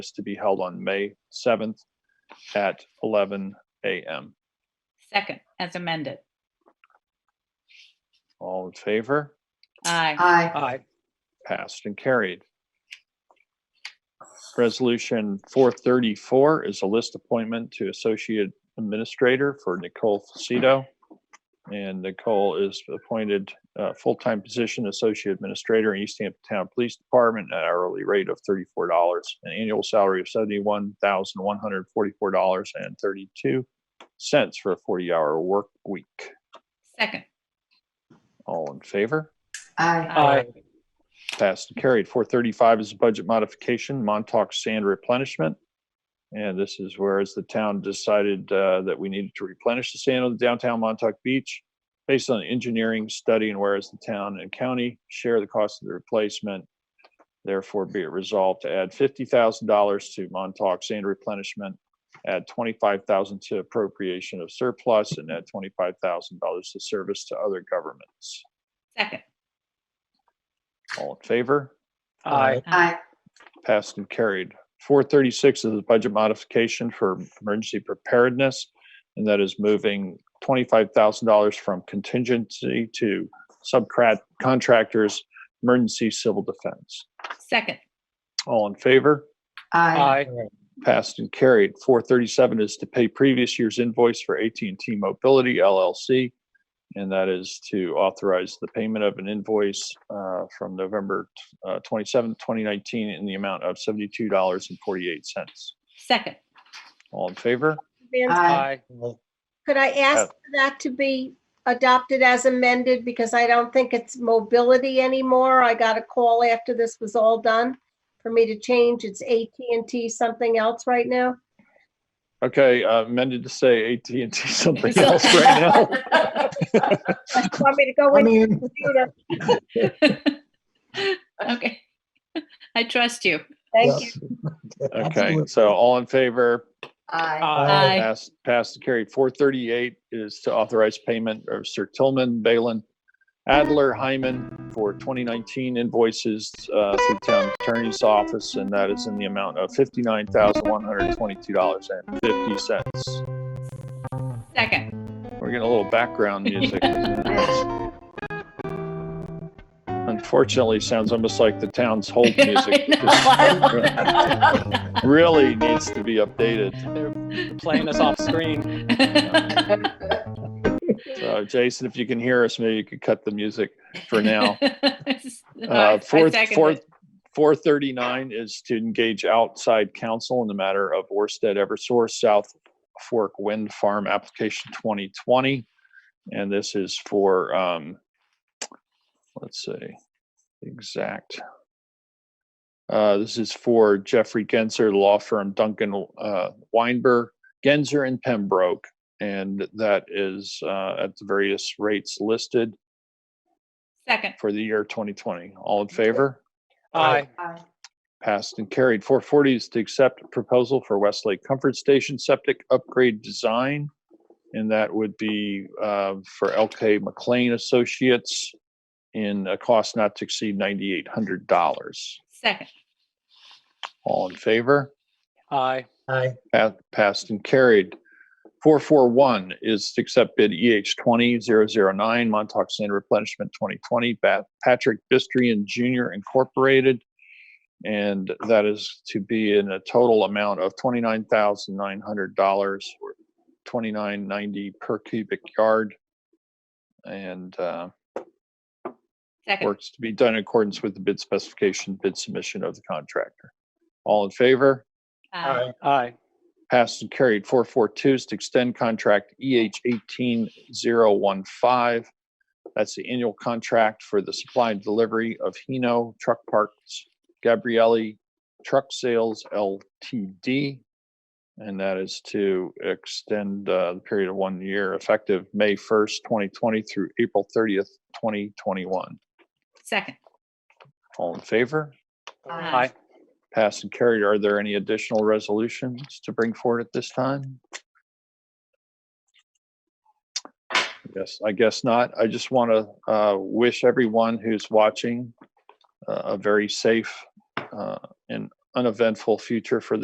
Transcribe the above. is to be held on May 7th at 11 a.m. Second, as amended. All in favor? Aye. Aye. Aye. Passed and carried. Resolution 434 is a list appointment to Associate Administrator for Nicole Faceto. And Nicole is appointed uh, full-time position Associate Administrator in East Hampton Town Police Department at hourly rate of $34, an annual salary of $71,144.32 for a 40-hour work week. Second. All in favor? Aye. Aye. Passed and carried. Four thirty-five is a budget modification, Montauk Sand Replenishment. And this is whereas the town decided uh, that we needed to replenish the sand on the downtown Montauk Beach based on an engineering study and whereas the town and county share the cost of the replacement. Therefore, be it resolved to add fifty thousand dollars to Montauk Sand Replenishment, add twenty-five thousand to appropriation of surplus, and add twenty-five thousand dollars to service to other governments. Second. All in favor? Aye. Aye. Passed and carried. Four thirty-six is a budget modification for emergency preparedness, and that is moving twenty-five thousand dollars from contingency to subcrat contractors, emergency civil defense. Second. All in favor? Aye. Aye. Passed and carried. Four thirty-seven is to pay previous year's invoice for AT&T Mobility LLC, and that is to authorize the payment of an invoice uh, from November uh, twenty-seventh, twenty nineteen, in the amount of seventy-two dollars and forty-eight cents. Second. All in favor? Vance, Aye. Aye. Could I Uh, ask for that to be adopted as amended because I don't think it's mobility anymore. I got a call after this was all done for me to change. It's AT&T something else right now. Okay, uh, amended to say AT&T something else right now. Want me to go in? the computer? Okay. I trust you. Thank you. Okay, so all in favor? Aye. Aye. Aye. Passed, passed and carried. Four thirty-eight is to authorize payment of Sir Tillman, Balin, Adler, Hyman for twenty nineteen invoices uh, through town attorney's office, and that is in the amount of fifty-nine thousand one hundred twenty-two dollars and fifty cents. Second. We're getting a little background music. Unfortunately, sounds almost like the town's hold Mm, music. Really needs to be updated. Playing us off screen. So Uh, Jason, if you can hear us, maybe you could cut the music for now. Uh, Uh, Fourth, second fourth, it. four thirty-nine is to engage outside counsel in the matter of Orsted Eversource South Fork Wind Farm Application twenty twenty. And this is for, um, let's see, exact. Uh, this is for Jeffrey Genzer, the law firm Duncan, uh, Weinberg, Genzer and Pembroke. And that is, uh, at the various rates listed Second. for the year twenty twenty. All in favor? Aye. Aye. Passed and carried. Four forty is to accept proposal for Westlake Comfort Station septic upgrade design. And that would be uh, for LK McLean Associates in a cost not to exceed ninety-eight hundred dollars. Second. All in favor? Aye. Pa- Passed and carried. Four four one is to accept bid EH twenty zero zero nine Montauk Sand Replenishment twenty twenty, Patrick Bistrian Junior Incorporated. And that is to be in a total amount of twenty-nine thousand nine hundred dollars, or twenty-nine ninety per cubic yard. And uh, Second. works to be done in accordance with the bid specification, bid submission of the contractor. All in favor? Aye. Aye. Passed and carried. 442 is to extend contract EH 18015. That's the annual contract for the supply and delivery of Hino Truck Parts Gabrielli Truck Sales LTD. And that is to extend uh, the period of one year effective May 1st, 2020 through April 30th, 2021. Second. All in favor? Aye. Aye. Passed and carried. Are there any additional resolutions to bring forward at this time? Yes, I guess not. I just want to uh, wish everyone who's watching uh, a very safe uh, and uneventful future for the.